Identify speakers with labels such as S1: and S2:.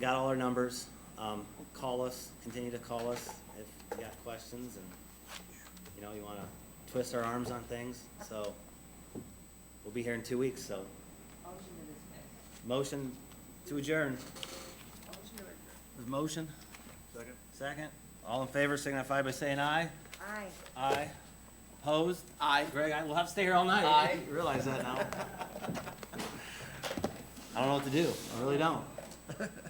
S1: got all our numbers. Um, call us, continue to call us if you got questions and, you know, you wanna twist our arms on things, so. We'll be here in two weeks, so.
S2: Motion to dismiss.
S1: Motion to adjourn.
S2: Motion to adjourn.
S1: Is motion? Second. Second. All in favor signify by saying aye.
S2: Aye.
S1: Aye. Opposed? Aye. Greg, I will have to stay here all night. I Realize that now. I don't know what to do. I really don't.